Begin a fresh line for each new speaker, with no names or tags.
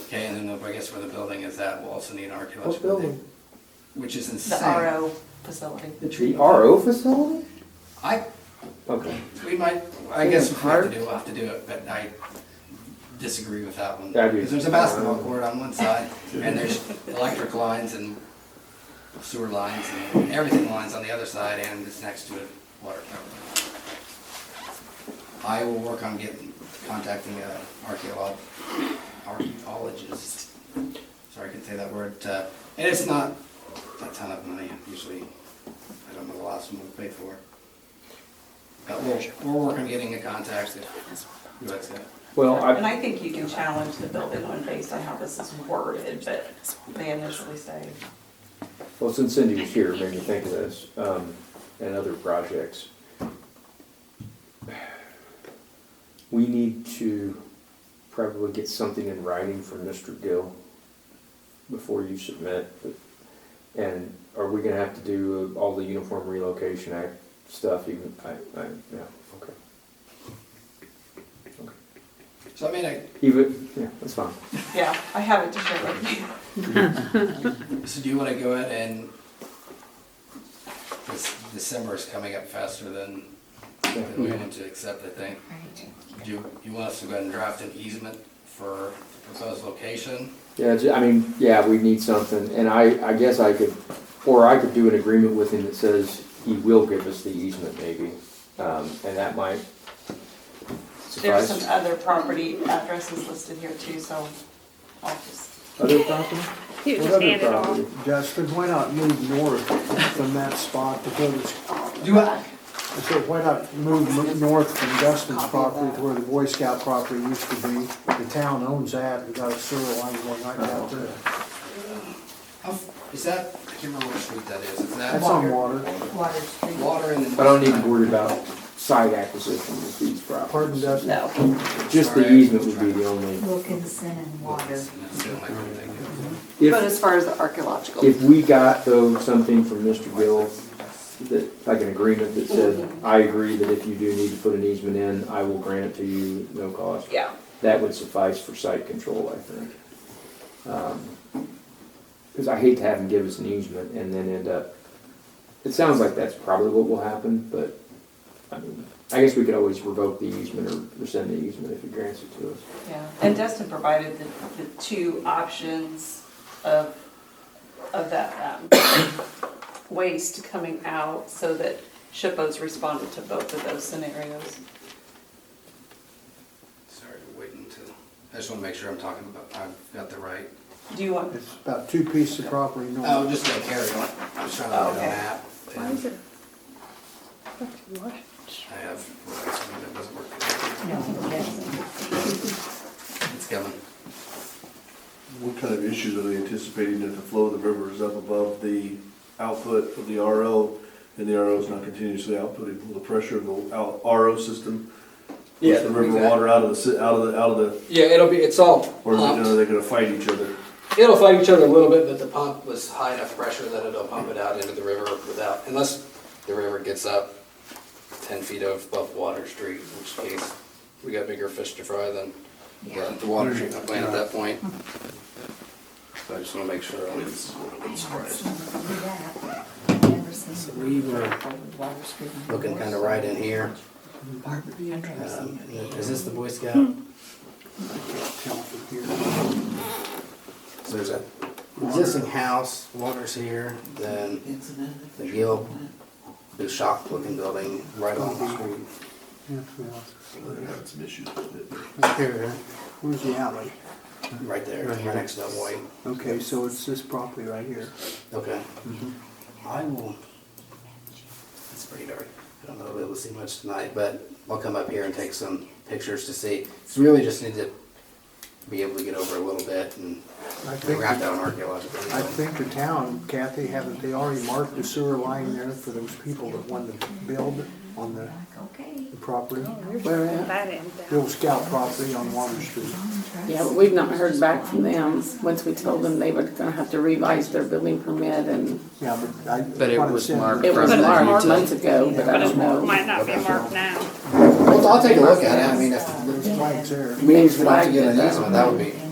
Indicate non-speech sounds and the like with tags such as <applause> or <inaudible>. Okay, and then I guess where the building is at, we'll also need an
What
archaeological dig,
building?
which is
The
insane.
RO facility.
The tree, RO facility?
I,
Okay,
we might, I
Thing
guess
in
if we have to
Clark?
do, we'll have to do it, but I disagree with that one.
I do.
Because there's a basketball court on one side, and
<laughs>
there's electric lines and sewer lines and everything lines on the other side, and it's next to a water tower. I will work on getting, contacting a archaeolog, archaeologist, sorry, I couldn't say that word, uh, and it's not a ton of money, usually, I don't know the last one we paid for. But we'll, we're working on getting a contact, if, who that's it.
well,
And
I,
I think you can challenge the building one based on how this is worded, but they initially say.
well, since Cindy was here, it made me think of this, um, and other projects. We need to probably get something in writing from Mr. Gill before you submit. And are we gonna have to do all the Uniform Relocation Act stuff even, I, I, yeah, okay. Okay.
So I mean, I,
Even, yeah, that's fine.
Yeah, I have it to share with you.
so do you wanna go ahead and, this, December is coming up faster than, than we want to accept, I think. Do you, you want us to go ahead and draft an easement for the proposed location?
Yeah, ju- I mean, yeah, we need something, and I, I guess I could, or I could do an agreement with him that says he will give us the easement maybe, um, and that might
<laughs> There's some
suffice.
other property addresses listed here too, so I'll just.
Other property?
He was
What
just
other
handed off.
property?
Justin, why not move north from that spot to go to,
Do I?
I said, why not move mo- north from Justin's property to where the Boy Scout property used to be? The town owns that, we got a sewer line going right down there.
Is that, I can't remember what street that is, is that
That's on water.
Water Street.
water and then?
I don't need to worry about side acquisition with these
Pardon,
properties.
Dustin?
No.
Just the easement would be the only,
Wilkinson and Water.
That's the only thing.
But
if,
as far as the archaeological.
if we got though something from Mr. Gill, that, like an agreement that said, I agree that if you do need to put an easement in, I will grant it to you, at no cost.
Yeah.
That would suffice for site control, I think. Because I hate to have them give us an easement and then end up, it sounds like that's probably what will happen, but, I mean, I guess we could always revoke the easement or rescind the easement if he grants it to us.
Yeah, and Dustin provided the, the two options of, of that, um, waste coming out so that Shippo's responded to both of those scenarios.
Sorry, we're waiting to, I just wanna make sure I'm talking about, I've got the right.
Do you want,
It's about two pieces of property north.
Oh, just gonna carry on, I was trying to look at a
Okay.
map.
Why is
and
it? What?
I have, that doesn't work.
No, yes.
It's coming.
What kind of issues are they anticipating that the flow of the river is up above the output of the RO? And the RO is not continuously outputting, will the pressure of the out- RO system push the river water out of the, si- out of the, out of the,
Yeah, it'll be, it's all
or
Uh-huh.
is it,
pumped.
are they gonna fight each other?
It'll fight each other a little bit, but the pump was high enough pressure that it'll pump it out into the river without, unless the river gets up ten feet above Water Street, in which case we got bigger fish to fry than the- the water treatment plant at
Mm-hmm.
that point. So I just wanna make sure. it's- it's right.
So we were looking kind of right in here. Um, Is this the Boy Scout? So there's a existing house, water's here, then the Gill, the shop looking building right on the street.
Yeah, well,
So They're having some issues with it.
Right there.
Where's the alley?
Right there, right next to that white.
Okay, so it's this property right here.
Okay.
Mm-hmm.
I will, it's pretty dark. I don't know if I'll be able to see much tonight, but I'll come up here and take some pictures to see. It's really just need to be able to get over a little bit and
I think,
wrap that on archaeological.
I think the town, Kathy, haven't they already marked the sewer line there for those people that wanted to build on the
Um,
Okay.
the property?
Where
at?
That end down.
The old scout property on Water Street.
Yeah, but we've not heard back from them. Once we told them they were gonna have to revise their building permit and
Yeah, but I.
But it was marked
it was
From that
marked
you
months ago, but I
But it
don't know.
might not be marked now.
Well, I'll take a look at it. I mean, if
There's flags there.
we have to get an easement, that would be.